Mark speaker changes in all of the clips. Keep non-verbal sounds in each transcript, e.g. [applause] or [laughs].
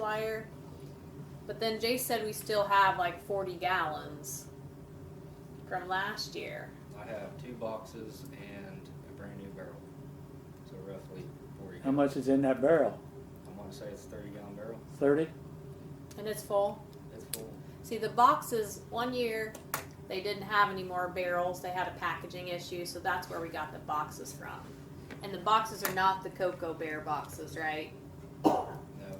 Speaker 1: flyer. But then Jay said we still have like 40 gallons from last year.
Speaker 2: I have two boxes and a brand new barrel. So roughly forty.
Speaker 3: How much is in that barrel?
Speaker 2: I wanna say it's thirty gallon barrel.
Speaker 3: Thirty?
Speaker 1: And it's full.
Speaker 2: It's full.
Speaker 1: See, the boxes, one year, they didn't have any more barrels. They had a packaging issue, so that's where we got the boxes from. And the boxes are not the Cocoa Bear boxes, right?
Speaker 2: No,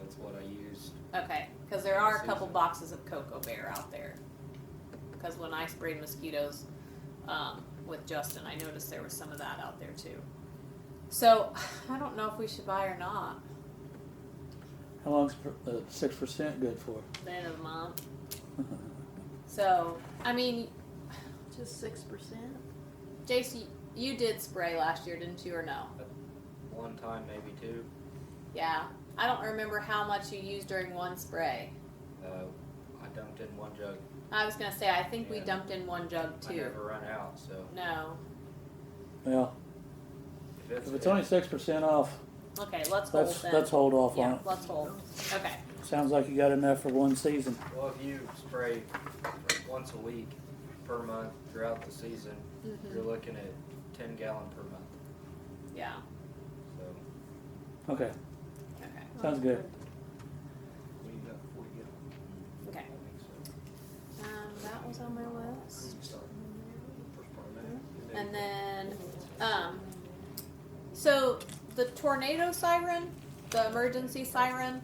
Speaker 2: it's what I used.
Speaker 1: Okay, because there are a couple boxes of Cocoa Bear out there. Because when I sprayed mosquitoes um, with Justin, I noticed there was some of that out there too. So [sighs] I don't know if we should buy or not.
Speaker 3: How long's per- uh, six percent good for?
Speaker 1: The end of the month. [laughs] So I mean, [sighs]
Speaker 4: Just six percent?
Speaker 1: Jace, you- you did spray last year, didn't you, or no?
Speaker 2: One time, maybe two.
Speaker 1: Yeah. I don't remember how much you used during one spray.
Speaker 2: Uh, I dumped in one jug.
Speaker 1: I was gonna say I think we
Speaker 2: Yeah.
Speaker 1: dumped in one jug
Speaker 2: I
Speaker 1: too.
Speaker 2: never run out, so
Speaker 1: No.
Speaker 3: Well,
Speaker 2: if it's.
Speaker 3: if it's only six percent off,
Speaker 1: Okay, let's hold
Speaker 3: let's
Speaker 1: then.
Speaker 3: let's hold off on
Speaker 1: yeah,
Speaker 3: it.
Speaker 1: let's hold. Okay.
Speaker 3: Sounds like you got enough for one season.
Speaker 2: Well, if you spray once a week per month throughout the season,
Speaker 1: hmm
Speaker 2: you're looking at ten gallon per month,
Speaker 1: Yeah.
Speaker 2: so.
Speaker 3: Okay,
Speaker 1: Okay.
Speaker 3: sounds good.
Speaker 2: We got forty gallon.
Speaker 1: Okay.
Speaker 2: I think so.
Speaker 1: Um, that was on my list.
Speaker 2: You start first part of that,
Speaker 1: Mm-hmm. And then, um, so the tornado siren, the emergency siren,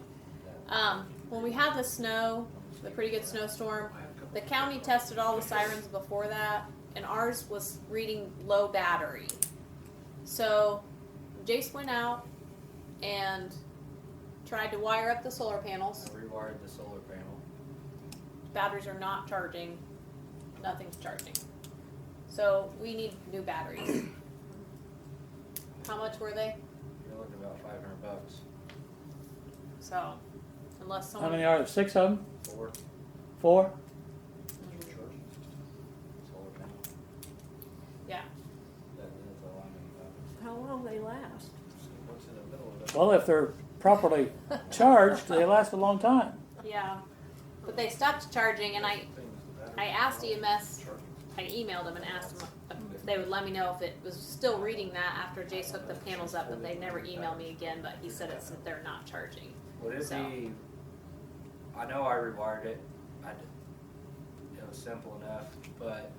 Speaker 1: um, when we had the snow,
Speaker 2: um,
Speaker 1: the pretty good snowstorm, the county tested all the sirens before that, and ours was reading low battery. So Jace went out and tried to wire up the solar panels.
Speaker 2: I rewired the solar panel.
Speaker 1: batteries are not charging. Nothing's charging. So we need new batteries. How much were they?
Speaker 2: You're looking about five hundred bucks.
Speaker 1: So, unless
Speaker 3: How
Speaker 1: someone.
Speaker 3: many are there? Six of them?
Speaker 2: Four.
Speaker 3: Four?
Speaker 2: Solar panel.
Speaker 1: Yeah.
Speaker 2: That, that's all I need.
Speaker 4: How long they last?
Speaker 2: What's in the middle of it?
Speaker 3: Well, if they're properly
Speaker 2: [laughs]
Speaker 3: charged, they last a long time.
Speaker 1: Yeah. But they stopped charging, and I, I asked E EMS, I emailed them and asked them if they would let me know if it was still reading that after Jace hooked the panels up, but they never emailed me again. But he said it's they're not charging.
Speaker 2: Would it
Speaker 1: So.
Speaker 2: be? I know I rewired it. I did. It was simple enough, but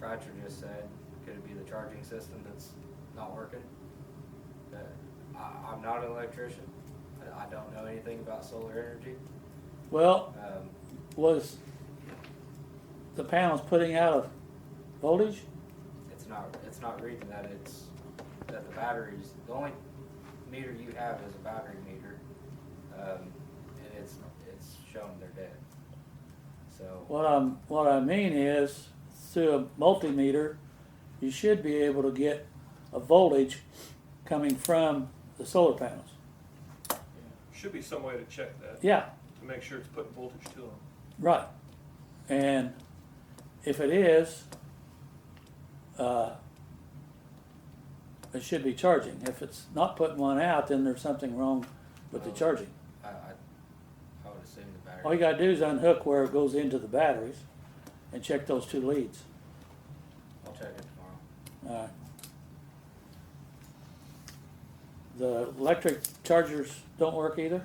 Speaker 2: Roger just said, could it be the charging system that's not working? That I, I'm not an electrician. I, I don't know anything about solar energy.
Speaker 3: Well,
Speaker 2: Um,
Speaker 3: was the panels putting out a voltage?
Speaker 2: it's not. It's not reading that. It's that the batteries. The only meter you have is a battery meter, um, and it's it's showing they're dead. So.
Speaker 3: What I'm, what I mean is, through a multimeter, you should be able to get a voltage coming from the solar panels.
Speaker 5: Should be some way to check that,
Speaker 3: Yeah,
Speaker 5: to make sure it's putting voltage to them.
Speaker 3: right. And if it is, uh, it should be charging. If it's not putting one out, then there's something wrong with the
Speaker 2: Well,
Speaker 3: charging.
Speaker 2: I, I, I would assume the battery.
Speaker 3: All you gotta do is unhook where it goes into the batteries and check those two leads.
Speaker 2: I'll check it tomorrow.
Speaker 3: Uh, The electric chargers don't work either?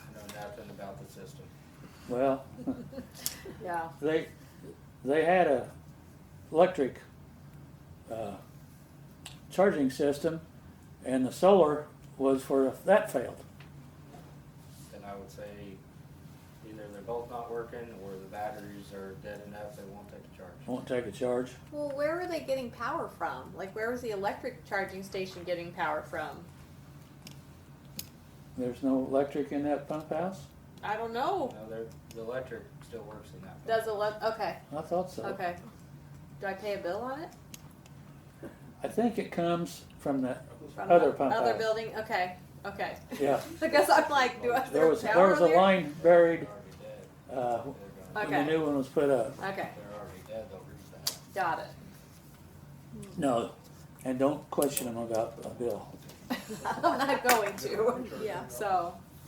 Speaker 2: I know nothing about the system.
Speaker 3: Well,
Speaker 1: Yeah.
Speaker 3: they, they had a electric, uh, charging system and the solar was for if that failed.
Speaker 2: Then I would say either they're both not working or the batteries are dead enough they won't take a charge.
Speaker 3: Won't take a charge.
Speaker 1: Well, where were they getting power from? Like, where was the electric charging station getting power from?
Speaker 3: There's no electric in that pump house?
Speaker 1: I don't know.
Speaker 2: No, they're, the electric still works in that.
Speaker 1: Does ele- okay,
Speaker 3: I thought so.
Speaker 1: okay. Do I pay a bill on it?
Speaker 3: I think it comes from the
Speaker 1: From
Speaker 3: other
Speaker 1: the
Speaker 3: pump house.
Speaker 1: Other building, okay, okay.
Speaker 3: Yeah,
Speaker 1: [laughs] I guess I'm like, do I, is
Speaker 3: there was, there
Speaker 1: power
Speaker 3: was a
Speaker 1: there?
Speaker 3: line buried,
Speaker 2: They're already dead.
Speaker 3: uh,
Speaker 2: They're gonna-
Speaker 3: when the new one was put up.
Speaker 1: Okay,
Speaker 2: They're already dead, they'll reach that.
Speaker 1: got it. [laughs]
Speaker 3: No, and don't question them about a bill.
Speaker 1: I'm not going to, [laughs]
Speaker 4: Yeah.
Speaker 1: so,